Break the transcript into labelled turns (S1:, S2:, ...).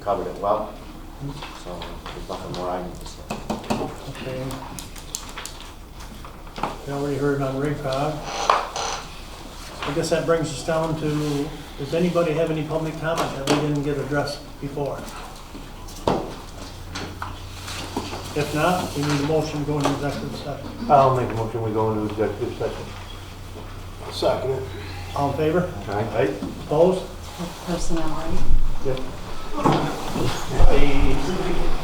S1: covered it well. So there's nothing more I need to say.
S2: Okay. We already heard on RICOG. I guess that brings us down to, does anybody have any public comment that we didn't get addressed before? If not, we need a motion going to executive session.
S3: I'll make a motion, we go into executive session.
S4: Second.
S2: All in favor?
S3: Aye.
S2: Opposed?
S5: personnel, right?
S3: Yep.
S2: The